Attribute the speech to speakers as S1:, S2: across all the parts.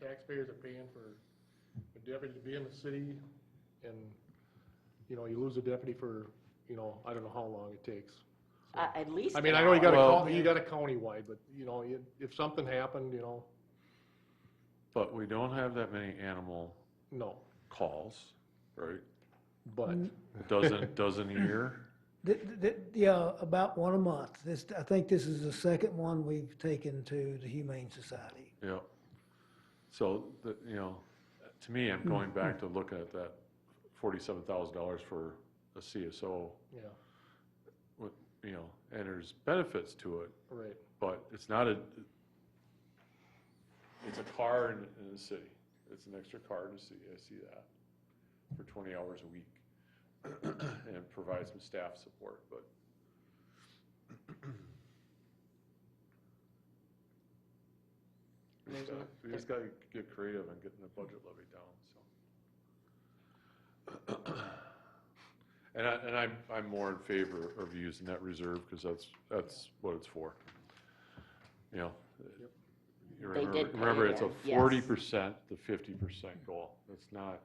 S1: taxpayers are paying for a deputy to be in the city, and, you know, you lose a deputy for, you know, I don't know how long it takes. So-
S2: Uh, At least.
S1: I mean, I
S2: an
S1: know you got a,
S2: hour.
S3: Well-
S1: coun- you got a countywide, but, you know, you- if something happened, you know,
S3: But we don't have that many animal
S1: no,
S3: calls, right?
S1: but,
S3: Doesn't, doesn't a year?
S4: Th- th- th- Yeah, about one a month. This, I think this is the second one we've taken to the Humane Society.
S3: Yeah. So, the- you know, to me, I'm going back to looking at that forty-seven thousand dollars for a CSO,
S1: yeah,
S3: with, you know, and there's benefits to it,
S1: right,
S3: but it's not a, it's a car in, in the city. It's an extra car in the city, I see that, for twenty hours a week. And it provides some staff support, but we just gotta, we just gotta get creative and getting the budget levy down, so. And I, and I'm, I'm more in favor of using that reserve, because that's, that's what it's for. You know? you
S2: They
S3: remember-
S2: did pay
S3: Remember, it's a
S2: then, yes.
S3: forty percent to fifty percent goal. It's not,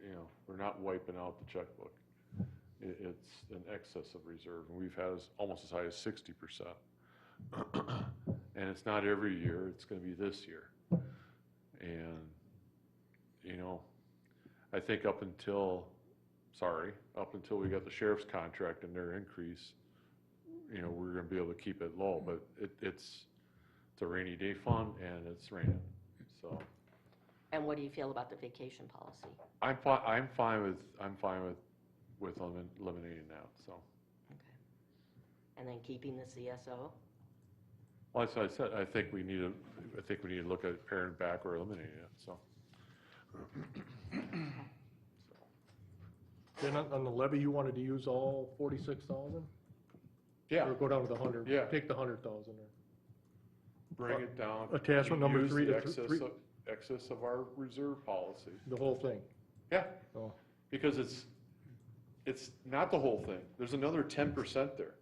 S3: you know, we're not wiping out the checkbook. It, it's an excess of reserve, and we've had as- almost as high as sixty percent. And it's not every year, it's gonna be this year. And, you know, I think up until, sorry, up until we got the sheriff's contract and their increase, you know, we're gonna be able to keep it low, but it, it's, it's a rainy day fund and it's raining. So
S2: And what do you feel about the vacation policy?
S3: I'm fine, I'm fine with, I'm fine with, with elimin- eliminating that, so.
S2: Okay. And then keeping the CSO?
S3: Well, as I said, I think we need to, I think we need to look at paring back or eliminating it, so.
S1: then on, on the levy, you wanted to use all forty-six thousand?
S3: Yeah,
S1: Or go down to the hundred?
S3: Yeah.
S1: Take the hundred thousand, or,
S3: bring it down.
S1: Uh, Attachment number
S3: Use
S1: three
S3: the
S1: to th-
S3: excess
S1: three-
S3: of- Excess of our reserve policy.
S1: the whole thing,
S3: Yeah,
S1: so,
S3: because it's, it's not the whole thing. There's another ten percent there.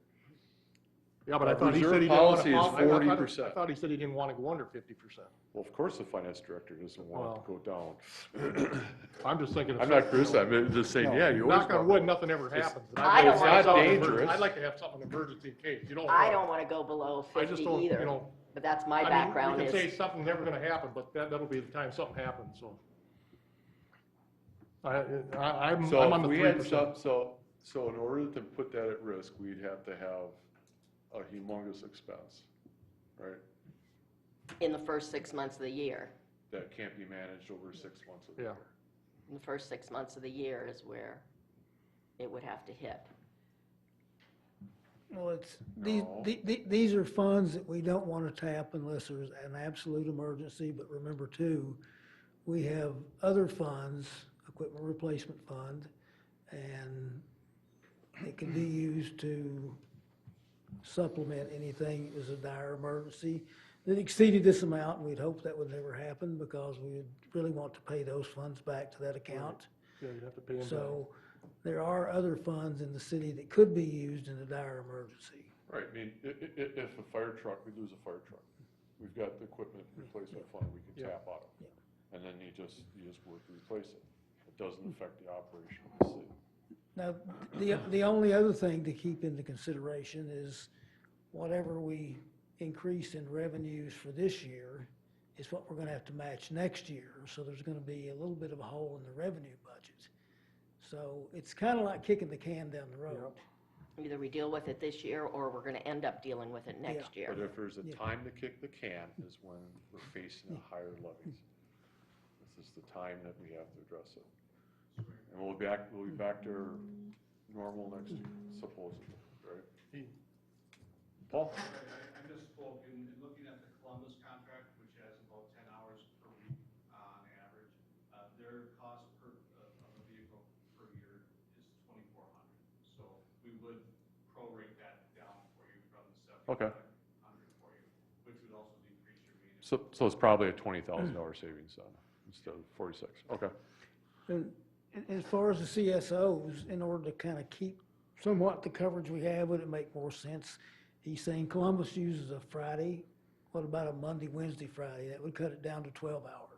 S1: yeah, but I
S3: Our
S1: thought he
S3: reserve
S1: said he didn't wanna.
S3: policy is
S1: I- I thought-
S3: 40%.
S1: I thought he said he didn't wanna go under fifty percent.
S3: Well, of course, the finance director doesn't want it to go down.
S1: I'm just thinking. of
S3: I'm not
S1: something
S3: criticizing, I'm just saying, yeah, you always.
S1: Knock on
S3: want-
S1: wood, nothing ever happens. and
S2: I don't
S1: I'd like
S2: wanna
S1: to have
S2: go-
S1: something emer-
S3: Dangerous.
S1: I'd like to have something emergency case, you don't.
S2: I
S1: know.
S2: don't want to go below
S1: I
S2: 50
S1: just don't, you
S2: either,
S1: know,
S2: but that's my
S1: I mean,
S2: background
S1: you can say
S2: is,
S1: something's never gonna happen, but that, that'll be the time something happens, so. I, I, I'm, I'm
S3: So
S1: on
S3: if
S1: the
S3: we
S1: three
S3: had
S1: percent.
S3: some, so, so in order to put that at risk, we'd have to have a humongous expense, right?
S2: in the first six months of the year.
S3: That can't be managed over six months of the
S1: Yeah.
S3: year.
S2: In the first six months of the year is where it would have to hit.
S4: Well, it's, these,
S3: No.
S4: the- the- these are funds that we don't want to tap unless there's an absolute emergency. But remember too, we have other funds, equipment replacement fund, and it can be used to supplement anything that was a dire emergency that exceeded this amount. and We'd hope that would never happen because we would really want to pay those funds back to that account.
S1: Yeah, you'd have to pay him back.
S4: So there are other funds in the city that could be used in a dire emergency.
S3: Right, I mean, i- i- i- if a fire truck, we lose a fire truck, we've got the equipment replacement fund we can
S1: Yeah.
S3: tap out of.
S4: Yeah. Mm-hmm.
S3: And then you just, you just work to replace it. It doesn't affect the operation of the city.
S4: Now, the, the only other thing to keep into consideration is whatever we increase in revenues for this year is what we're gonna have to match next year, so there's gonna be a little bit of a hole in the revenue budget. So it's kinda like kicking the can down the road.
S2: Either we deal with it this year or we're going to end up dealing with it next year.
S3: But if there's a
S4: Yeah.
S3: time to kick the can is when we're facing the higher levies. This is the time that we have to address it. And we'll be back, we'll be back to normal next year supposedly, right? Paul?
S5: I I misspoke in in looking at the Columbus contract, which has about ten hours per week on average. uh, Their cost per, of of a vehicle per year is twenty-four hundred. So we would prorate that down for you from the
S3: Okay.
S5: seventy-five hundred for you, which would also decrease your maintenance.
S3: So, so it's probably a twenty thousand dollar savings then, instead of forty-six, okay.
S4: And and as far as the CSOs, in order to kind of keep somewhat the coverage we have, would it make more sense? He's saying Columbus uses a Friday, what about a Monday, Wednesday, Friday? That would cut it down to twelve hours.